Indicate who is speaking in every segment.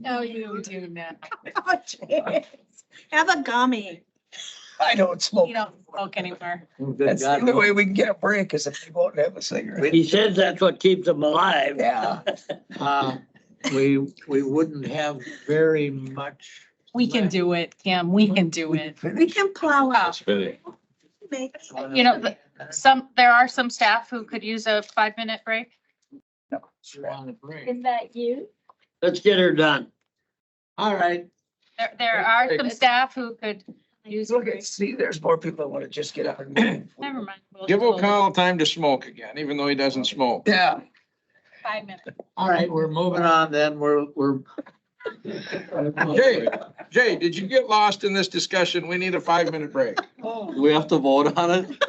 Speaker 1: No, you do not.
Speaker 2: Oh, jeez. Have a gummy.
Speaker 3: I don't smoke.
Speaker 1: You don't smoke anymore.
Speaker 3: That's the only way we can get a break is if they won't have a cigarette.
Speaker 4: He says that's what keeps them alive.
Speaker 3: Yeah,
Speaker 5: Uh, We, we wouldn't have very much.
Speaker 1: We can do it, Kim. We can do it.
Speaker 2: We can plow out. Make-
Speaker 1: You know, the- Some, there are some staff who could use a five-minute break.
Speaker 6: Is that you?
Speaker 4: Let's get her done.
Speaker 5: All right,
Speaker 1: There, there are some staff who could use. a
Speaker 3: look at,
Speaker 1: break.
Speaker 3: see, there's more people that want to just get up and move.
Speaker 1: Never mind. we'll-
Speaker 7: Give
Speaker 1: we'll-
Speaker 7: O'Connell time to smoke again, even though he doesn't smoke.
Speaker 3: Yeah,
Speaker 1: Five minutes.
Speaker 5: all right, we're moving on then, we're, we're.
Speaker 7: Jay, Jay, did you get lost in this discussion? We need a five-minute break.
Speaker 5: We'll
Speaker 8: Do we have to vote on it?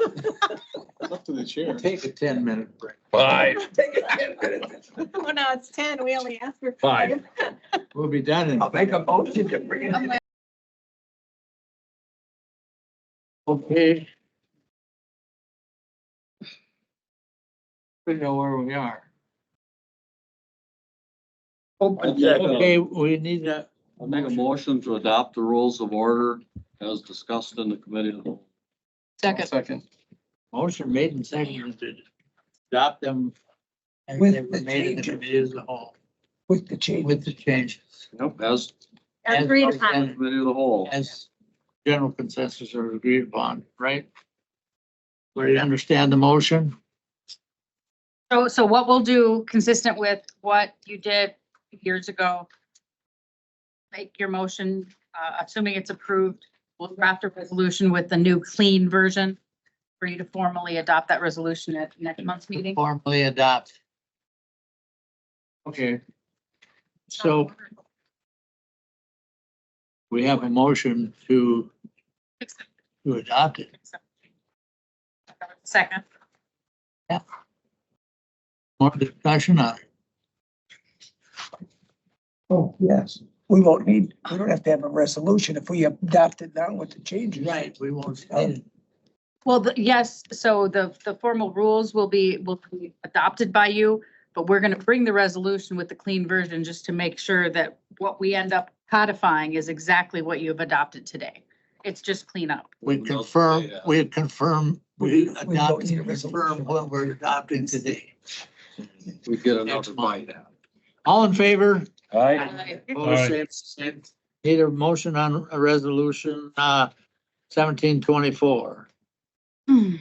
Speaker 7: Up to the chair.
Speaker 5: Take a ten minute break.
Speaker 9: Five,
Speaker 3: Take a ten minutes.
Speaker 2: Oh, no, it's ten. We only asked for.
Speaker 9: five.
Speaker 5: We'll be done in.
Speaker 3: I'll make a motion to bring it. in.
Speaker 5: Okay. We know where we are. Okay, we need a,
Speaker 8: I'll make a motion to adopt the rules of order as discussed in the committee. of the whole.
Speaker 7: Second.
Speaker 5: Motion made and seconded to adopt them. And they were
Speaker 3: With the
Speaker 5: made in the
Speaker 3: changes.
Speaker 5: committee as a whole,
Speaker 3: With the change.
Speaker 5: with the changes.
Speaker 8: As,
Speaker 2: Agreed
Speaker 5: As-
Speaker 2: upon.
Speaker 8: committee of the whole.
Speaker 5: As general consensus are agreed upon, right? Where you understand the motion?
Speaker 1: So, so what we'll do, consistent with what you did years ago, make your motion, uh, assuming it's approved, we'll draft a resolution with the new clean version for you to formally adopt that resolution at next month's meeting.
Speaker 5: Formally adopt. Okay. So we have a motion to, to adopt it.
Speaker 1: Second.
Speaker 5: More discussion on it.
Speaker 3: Oh, yes. We won't need, we don't have to have a resolution if we adopt it now with the changes.
Speaker 5: We won't.
Speaker 1: Well, the- yes, so the, the formal rules will be, will be adopted by you, but we're going to bring the resolution with the clean version just to make sure that what we end up codifying is exactly what you have adopted today. It's just cleanup.
Speaker 5: We confirm, we confirm, we
Speaker 3: We- we
Speaker 5: adopt,
Speaker 3: don't need a
Speaker 5: confirm
Speaker 3: resolution.
Speaker 5: what we're adopting today.
Speaker 8: We get
Speaker 5: Next
Speaker 8: another
Speaker 5: month.
Speaker 8: bite at it.
Speaker 5: All in favor?
Speaker 9: Aye.
Speaker 5: Opposed, same, same. Need a motion on a resolution, uh, seventeen twenty-four.
Speaker 1: Hmm.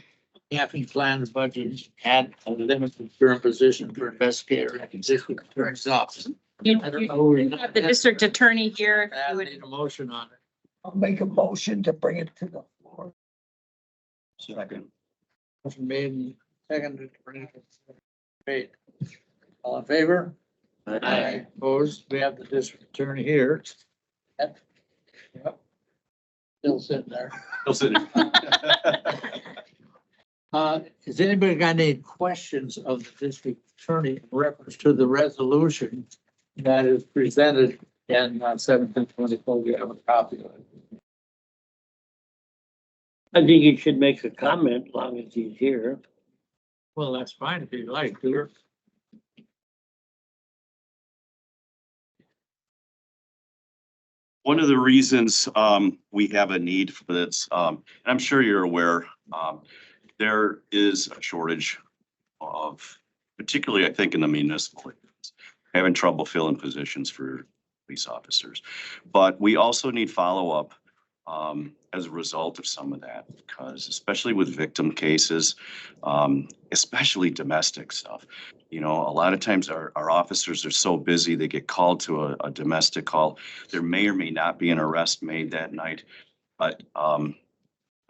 Speaker 5: Capping plans budget at a limited term position for investigator at existing terms office.
Speaker 1: You-
Speaker 5: I don't
Speaker 1: you-
Speaker 5: know where
Speaker 1: you
Speaker 5: you're
Speaker 1: have The district attorney here, if
Speaker 5: I
Speaker 1: you would-
Speaker 5: need a motion on it.
Speaker 3: I'll make a motion to bring it to the floor.
Speaker 8: Second.
Speaker 5: Motion made and seconded. Great. All in favor? Opposed? We have the district attorney here. Yep. Still sitting there. Uh, has anybody got any questions of the district attorney in reference to the resolution that is presented in uh, seventeen twenty-four? We have a copy of it.
Speaker 4: I think he should make a comment long as he's here.
Speaker 5: Well, that's fine if you like, Peter.
Speaker 10: One of the reasons um, we have a need for this, um, and I'm sure you're aware, um, there is a shortage of, particularly I think in the municipal, areas, having trouble filling positions for police officers. But we also need follow-up um, as a result of some of that, because especially with victim cases, um, especially domestic stuff, you know, a lot of times our, our officers are so busy, they get called to a, a domestic call there may or may not be an arrest made that night. But um,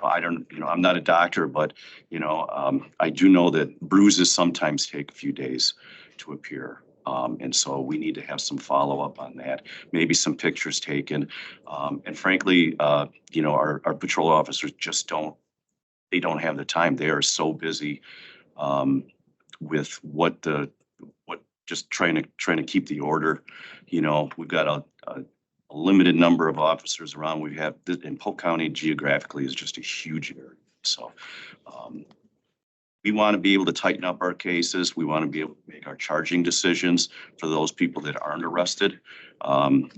Speaker 10: I don't, you know, I'm not a doctor, but, you know, um, I do know that bruises sometimes take a few days to appear. Um, and so we need to have some follow-up on that, maybe some pictures taken. Um, and frankly, uh, you know, our, our patrol officers just don't, they don't have the time. They are so busy um, with what the, what, just trying to, trying to keep the order. You know, we've got a, a a limited number of officers around. We have, in Polk County geographically is just a huge area. So um, We want to be able to tighten up our cases. We want to be able to make our charging decisions for those people that aren't arrested. Um,